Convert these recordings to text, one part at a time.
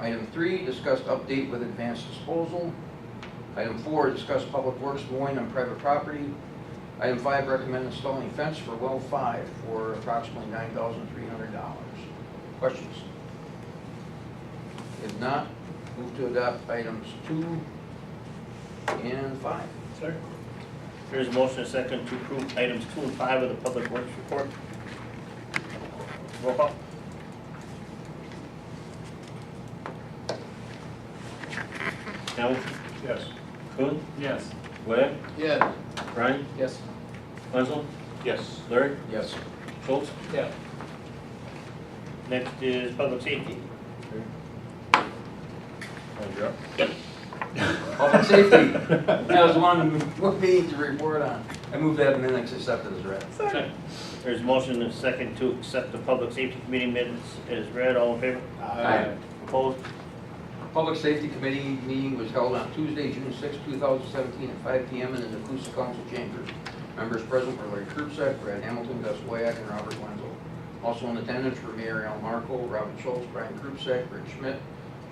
Item three, discuss update with advanced disposal. Item four, discuss public works mowing on private property. Item five, recommend installing fence for well five for approximately nine thousand three hundred dollars. Questions? If not, move to adopt items two and five. Sir? There's a motion and a second to approve items two and five of the Public Works Report. Roll call. Hamilton? Yes. Kuhn? Yes. Webb? Yes. Ryan? Yes. Wenzel? Yes. Larry? Yes. Schultz? Yes. Next is Public Safety. Public safety, that was one we need to report on. I move that minutes accepted as read. There's a motion and a second to accept the Public Safety Committee minutes as read. All in favor? Aye. Opposed? Public Safety Committee meeting was held on Tuesday, June 6, 2017, at 5 PM in the Nacusa Council Chambers. Members present were Larry Krupsek, Brad Hamilton, Gus Wyack, and Robert Wenzel. Also in attendance were Mayor Al Marco, Robin Schultz, Brian Krupsek, Rick Schmidt,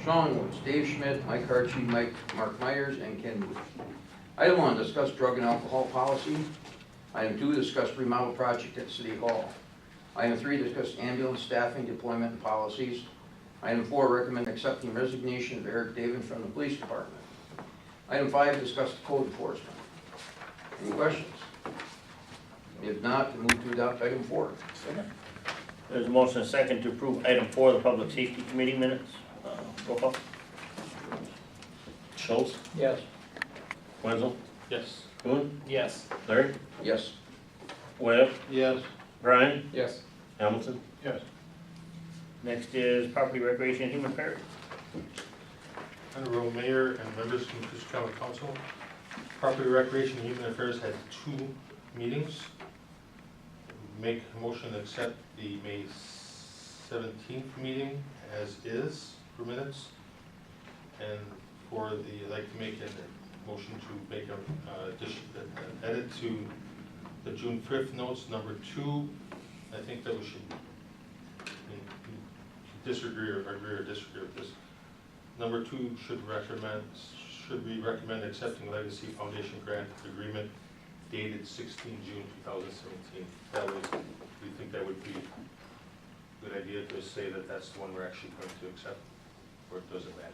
Sean Woods, Dave Schmidt, Mike Hartshee, Mike, Mark Myers, and Ken Booth. Item one, discuss drug and alcohol policy. Item two, discuss remodel project at City Hall. Item three, discuss ambulance staffing deployment and policies. Item four, recommend accepting resignation of Eric David from the police department. Item five, discuss the code enforcement. Any questions? If not, move to adopt item four. There's a motion and a second to approve item four, the Public Safety Committee minutes. Uh, Roll call. Schultz? Yes. Wenzel? Yes. Kuhn? Yes. Larry? Yes. Webb? Yes. Brian? Yes. Hamilton? Yes. Next is Property Recreation and Human Affairs. Honorable Mayor and members from Coosa County Council, Property Recreation and Human Affairs had two meetings. Make a motion to accept the May seventeenth meeting as is for minutes. And for the, I'd like to make a motion to make a, uh, addition, an edit to the June fifth notes, number two. I think that we should mm, disagree or agree or disagree with this. Number two, should recommend, should we recommend accepting Legacy Foundation grant agreement dated sixteen June two thousand seventeen? That was, we think that would be a good idea to say that that's the one we're actually going to accept, or it doesn't matter?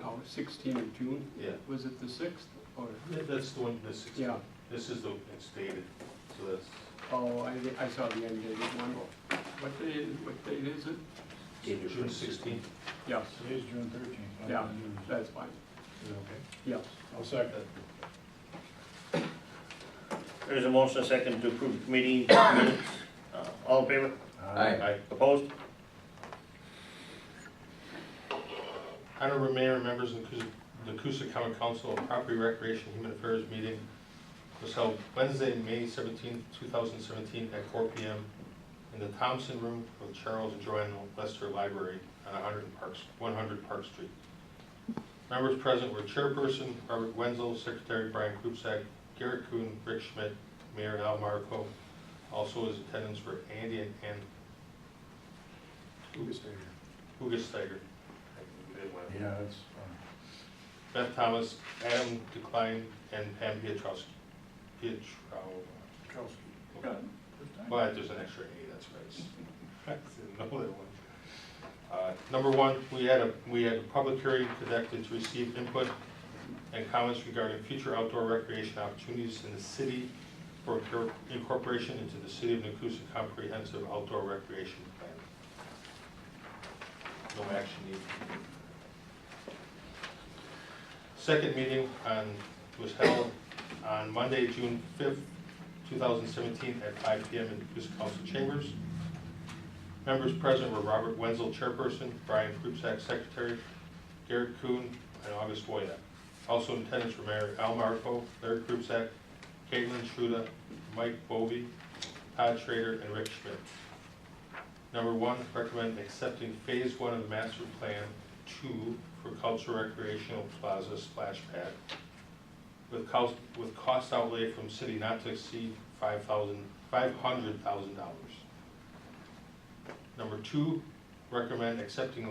No, 16 of June, Yeah, was it the 6th or, that's the one, the sixteen, yeah, this is the, it's dated, so that's oh, I, I saw the end date one. What day, what date is it? June sixteenth. Yes, Today's June thirteenth. Yeah. that's fine, yes. I'll second. There's a motion and a second to approve the committee minutes. Uh, All in favor? Aye. Opposed? Honorable Mayor, members of the Coosa- the Coosa County Council on Property Recreation and Human Affairs meeting was held Wednesday, May seventeenth, two thousand seventeen, at four P M. in the Thompson Room of Charles and Joanne Lester Library on hundred Park, one hundred Park Street. Members present were Chairperson Robert Wenzel, Secretary Brian Krupsack, Garrett Kuhn, Rick Schmidt, Mayor Al Marco. Also his attendants were Andy and Ann. Hugus Steiger. I didn't want to- Yeah, it's, Beth Thomas, Adam Decline, and Pam Pietrowski. Pietrow, well, there's an extra A, that's right. I didn't know that one. Uh, Number one, we had a, we had a public hearing conducted to receive input and comments regarding future outdoor recreation opportunities in the city for incor- incorporation into the City of Nacusa Comprehensive Outdoor Recreation Plan. No action needed. Second meeting on, was held on Monday, June fifth, 2017 at 5 PM in Coosa Council Chambers. Members present were Robert Wenzel, Chairperson, Brian Krupsack, Secretary, Garrett Kuhn, and August Voynick. Also in attendance were Mayor Al Marco, Larry Krupsack, Caitlin Shuda, Mike Bovee, Todd Schrader, and Rick Schmidt. Number one, recommend accepting Phase One of the Master Plan Two for Cultural Recreational Plaza Splash Pad with cost, with cost outlay from city not to exceed five thousand, five hundred thousand dollars. Number two, recommend accepting